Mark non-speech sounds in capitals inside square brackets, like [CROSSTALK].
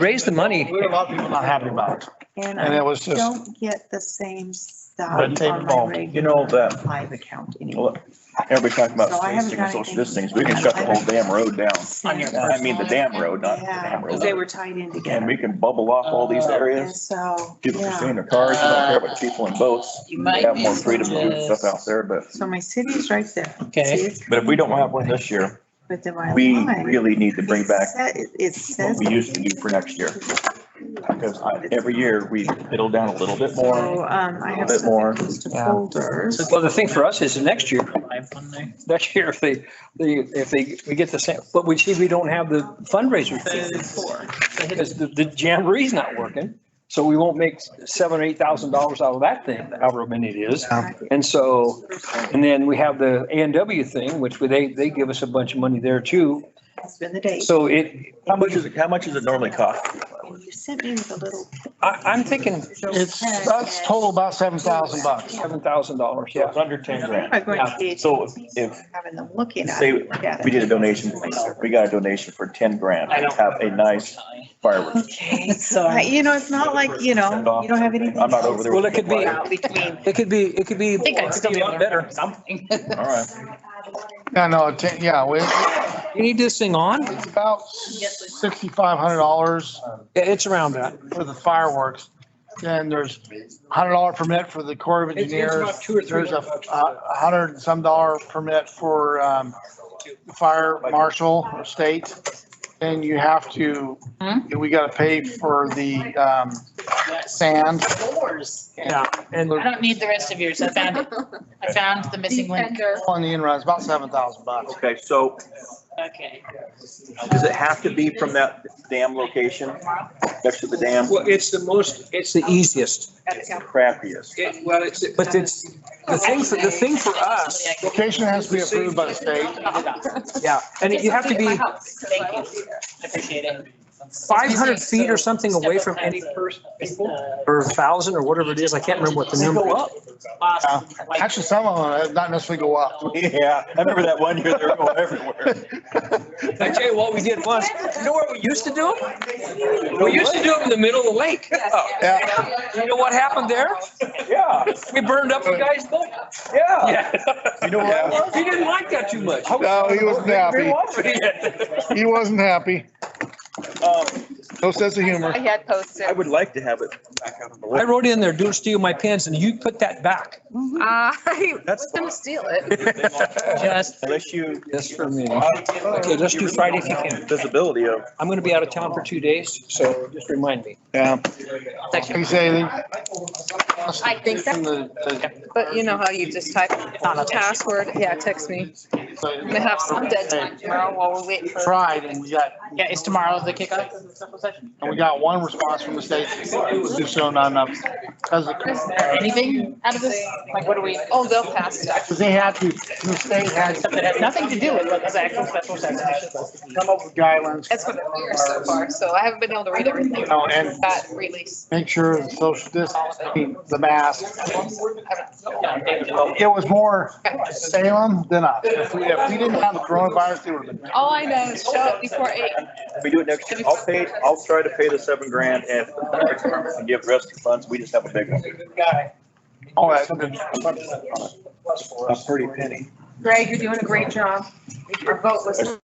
raise the money. We had a lot of people not happy about it. And And I it was just, don't get the same stuff Red tape on my involved. regular You know that, live account anymore. look, everybody talking about So I haven't spacing and social got anything. distancing, we can shut the whole damn road down. On your I mean, the dam road, not the dam Because they road. were tied in And together. we can bubble off all these And areas, so, people can stay Uh, yeah. in their cars, you don't care about people in boats. You You might have be more freedom to do serious. stuff out there, but, So my city is right there. See, Okay. it's but if we don't coming. have one this year, But then my we line- really need to bring it back sa- It it what says. we used to do for next year. Because I- every year, we fiddle down a little bit more. So, um, I a have bit more. some to Yeah. folders. Well, the thing for us is the next year, [LAUGHS] next year, if they, they- if they, we get the same, but we see we don't have the fundraiser thing Four. because the, the jamboree's not working. So we won't make seven, or eight thousand dollars out of that thing, however many it is. And so, and then we have the A and W thing, which we- they, they give us a bunch of money there too. That's been the date. So it, How much is it, how much does it normally cost? And You sent me with a little. I, I'm thinking it's, that's total about seven thousand bucks. seven thousand dollars, So yeah. it's under ten grand. I'm going to be- So if- if, Having them looking at say, it. look at we it. did a donation, we got a donation for ten grand, I don't have a nice [LAUGHS] fireworks. Okay, I- Sorry. you know, it's not like, you know, you don't have anything. I'm not over there. Well, it could be- out Between It could be, it could be. I think I'd still be a lot better or something. All right. Yeah, no, ten- yeah, we- You need this thing on? it's about sixty-five hundred dollars Yeah, it's around that. for the fireworks. Then there's hundred dollar permit for the Corps of It's- it's Engineers. about two or three There's a, hundred bucks. a hundred and some dollar permit for, um, the fire marshal or state. And you have to, we gotta pay for the, um, sand. Fours. Yeah, and I don't need the rest of yours. I found it. I found the missing link. On the in runs, about seven thousand bucks. Okay, so Okay. does it have to be from that dam location next to the dam? well, it's the most, it's the easiest. It's Crappiest. [LAUGHS] It, well, it's, but it's, the thing, for the thing for us, Location has to be approved by the state. yeah, and you have to be Thank you. Appreciate it. five hundred feet or something away from any person, or thousand or whatever it is. I can't remember what the number was. Uh, Awesome. Actually, some of them, not necessarily go up. [LAUGHS] Yeah, I remember that one year, they were going everywhere. I tell you what we did once, you know where we used to do it? We used to do it in the middle of the lake. Yeah, You know what happened there? Yeah, We burned up a guy's boat. yeah. Yeah. You know what? He didn't like that too much. no, he wasn't happy. He wasn't happy. Um, No sense of humor. I had posted. I would like to have it back out on the I list. wrote in there, don't steal my pens, and you put that back. Uh, I That's- was gonna steal it. [LAUGHS] Just. Unless you. Yes, for me. Okay, let's do Friday if you can. Visibility of, I'm gonna be out of town for two days, so just remind me. Yeah. Section. You say anything? I think so. From the- But you know how you just type password? Yeah, text me. I'm gonna have some deadline tomorrow while we're waiting We for. Tried and we got, Yeah, it's tomorrow the kickoff of the special session. and we got one response from the state. It was just uh, so not enough. Cause, Is it- there anything out of this? Like, what do we? Oh, they'll pass it. 'cause they had to, the state had Stuff that has nothing to do with what this actual special session is supposed to be. come up with guidelines. That's what I'm hearing so far, so I haven't been able to read everything. You know, and- That release. Make sure the social distance, I mean, the mask. Yeah, It was more Salem than us. If we, if we didn't have the coronavirus, they would have been. All I know is show up before eight. we do it next year, I'll pay, I'll try to pay the seven grand and and give the rest of the funds, we just have a big one. Oh, that's been- A pretty penny. Greg, you're doing a great job. Our vote was